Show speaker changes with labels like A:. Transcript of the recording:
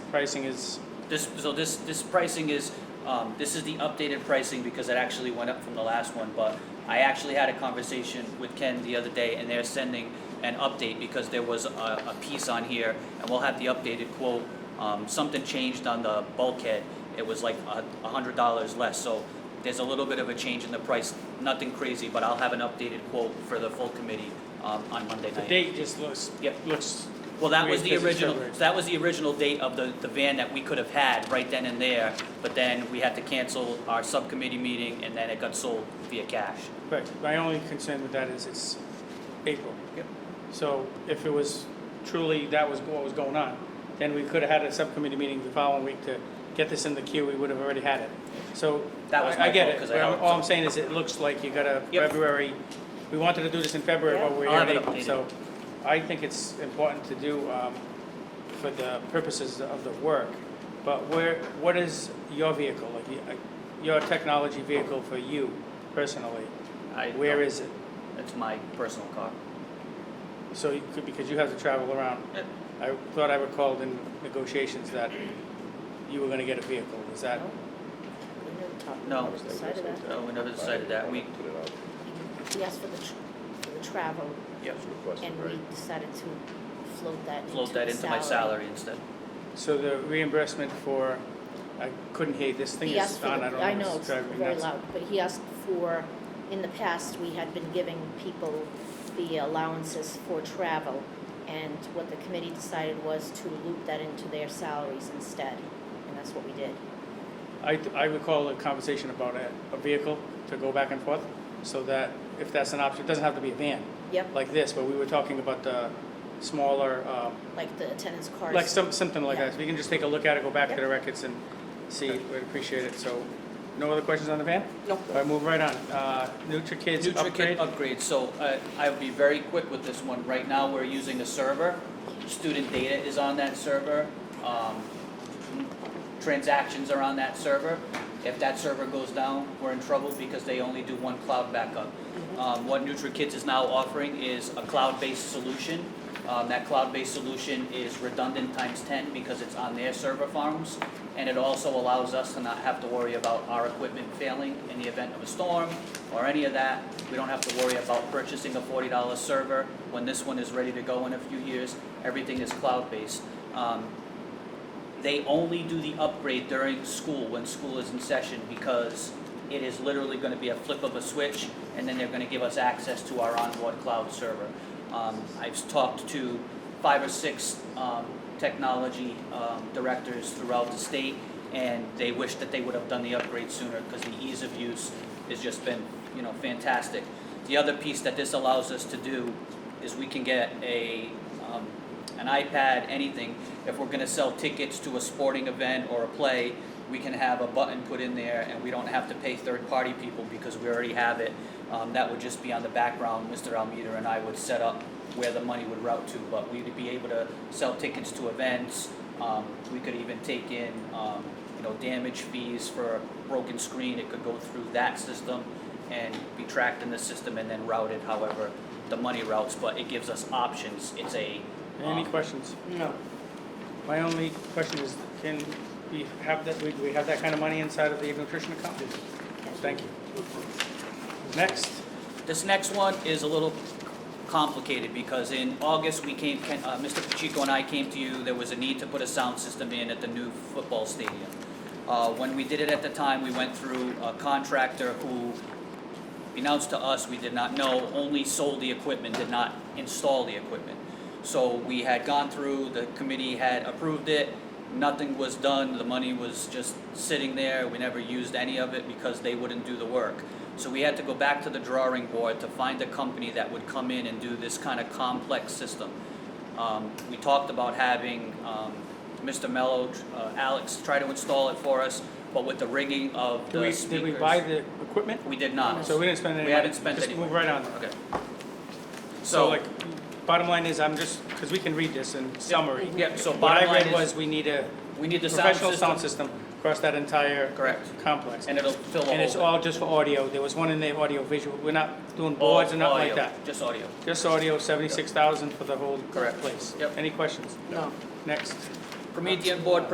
A: pricing is,
B: This, so this, this pricing is, um, this is the updated pricing because it actually went up from the last one, but I actually had a conversation with Ken the other day and they're sending an update because there was a, a piece on here and we'll have the updated quote. Um, something changed on the bulkhead. It was like a, a hundred dollars less, so there's a little bit of a change in the price, nothing crazy, but I'll have an updated quote for the full committee, um, on Monday
A: the
B: night.
A: date just looks,
B: Yep.
A: looks,
B: Well, that was
A: Wait,
B: the
A: this is
B: original,
A: February.
B: that was the original date of the, the van that we could have had right then and there, but then we had to cancel our subcommittee meeting and then it got sold via cash.
A: but my only concern with that is it's April.
B: Yep.
A: So if it was truly that was what was going on, then we could have had a subcommittee meeting the following week to get this in the queue, we would have already had it. So
B: That was
A: I I
B: my
A: get
B: fault,
A: it,
B: 'cause
A: but
B: I
A: I'm-
B: helped.
A: all I'm saying is it looks like you got a
B: Yep.
A: February, we wanted to do this in February, but
C: Yeah.
A: we're
B: I'll
A: here in
B: have it
A: April.
B: updated.
A: So I think it's important to do um, for the purposes of the work. But where, what is your vehicle, like y- uh, your technology vehicle for you personally?
B: I,
A: Where is it?
B: That's my personal car.
A: So, you could- because you have to travel around.
B: Yep.
A: I thought I recalled in negotiations that you were gonna get a vehicle, is that?
B: No.
C: Decided that.
B: No, we never Oh, decided that. We-
D: Put it out,
C: He asked for the, tr- for the travel,
B: Yep.
D: it's requested,
C: and we
D: right?
C: decided to float that into
B: Float that
C: the
B: into my salary instead.
A: So the reimbursement for, I couldn't hear, this thing
C: He asked
A: is
C: for, the-
A: on, I don't know.
C: I know,
A: it's
C: it's
A: driving me
C: very
A: nuts.
C: loud, but he asked for, in the past, we had been giving people the allowances for travel, and what the committee decided was to loop that into their salaries instead, and that's what we did.
A: I, I recall a conversation about a, a vehicle to go back and forth, so that if that's an option, it doesn't have to be a van,
C: Yep,
A: like this, but we were talking about the smaller, um,
C: like the attendance cars.
A: like some, something like
C: Yeah.
A: that. So we can just take a look at it, go back to
C: Yep.
A: the records and see, we'd appreciate it, so, no other questions on the van?
B: Nope.
A: All right, move right on, uh, NutriKids upgrade?
B: NutriKit upgrade, so uh, I'll be very quick with this one. Right now, we're using a server. Student data is on that server. Um, Transactions are on that server. If that server goes down, we're in trouble because they only do one cloud backup. Um, What NutriKids is now offering is a cloud-based solution. Um, That cloud-based solution is redundant times 10 because it's on their server farms. And it also allows us to not have to worry about our equipment failing in the event of a storm or any of that. We don't have to worry about purchasing a $40 server when this one is ready to go in a few years. Everything is cloud-based. Um, they only do the upgrade during school, when school is in session, because it is literally gonna be a flip of a switch, and then they're gonna give us access to our onboard cloud server. Um, I've talked to five or six, um, technology, um, directors throughout the state, and they wish that they would have done the upgrade sooner, because the ease of use has just been, you know, fantastic. The other piece that this allows us to do is we can get a, um, an iPad, anything. If we're gonna sell tickets to a sporting event or a play, we can have a button put in there and we don't have to pay third-party people because we already have it. Um, that would just be on the background, Mr. Almeida and I would set up where the money would route to, but we'd be able to sell tickets to events. Um, we could even take in, um, you know, damage fees for a broken screen, it could go through that system and be tracked in the system and then routed however the money routes, but it gives us options, it's a,
A: Any
B: um,
A: questions? No. My only question is, can we have that, we- we have that kind of money inside of the nutrition account? Thank you. Next,
B: This next one is a little complicated because in August, we came, Ken- uh, Mr. Pacheco and I came to you, there was a need to put a sound system in at the new football stadium. Uh, When we did it at the time, we went through a contractor who announced to us, we did not know, only sold the equipment, did not install the equipment. So we had gone through, the committee had approved it, nothing was done, the money was just sitting there, we never used any of it because they wouldn't do the work. So we had to go back to the drawing board to find a company that would come in and do this kind of complex system. Um, we talked about having, um, Mr. Mello, uh, Alex try to install it for us, but with the rigging of
A: do
B: the
A: we, did
B: speakers.
A: we buy the equipment?
B: We did not.
A: So we didn't spend any money?
B: We haven't spent any
A: Just move
B: money.
A: right on.
B: Okay.
A: So
B: So,
A: like, bottom line is, I'm just, because we can read this in summary.
B: yeah, so
A: What
B: bottom
A: I
B: line
A: read
B: is,
A: was, we need a
B: we need the sound
A: professional sound
B: system,
A: system across that entire
B: correct,
A: complex.
B: and it'll fill the
A: And it's
B: whole-
A: all just for audio, there was one in there, audio visual, we're not doing
B: all
A: boards and nothing like
B: Oh, audio,
A: that.
B: Just audio.
A: Just audio, seventy-six thousand for the whole
B: Correct.
A: place.
B: Yep.
A: Any questions?
C: No.
A: Next.
B: Promethean board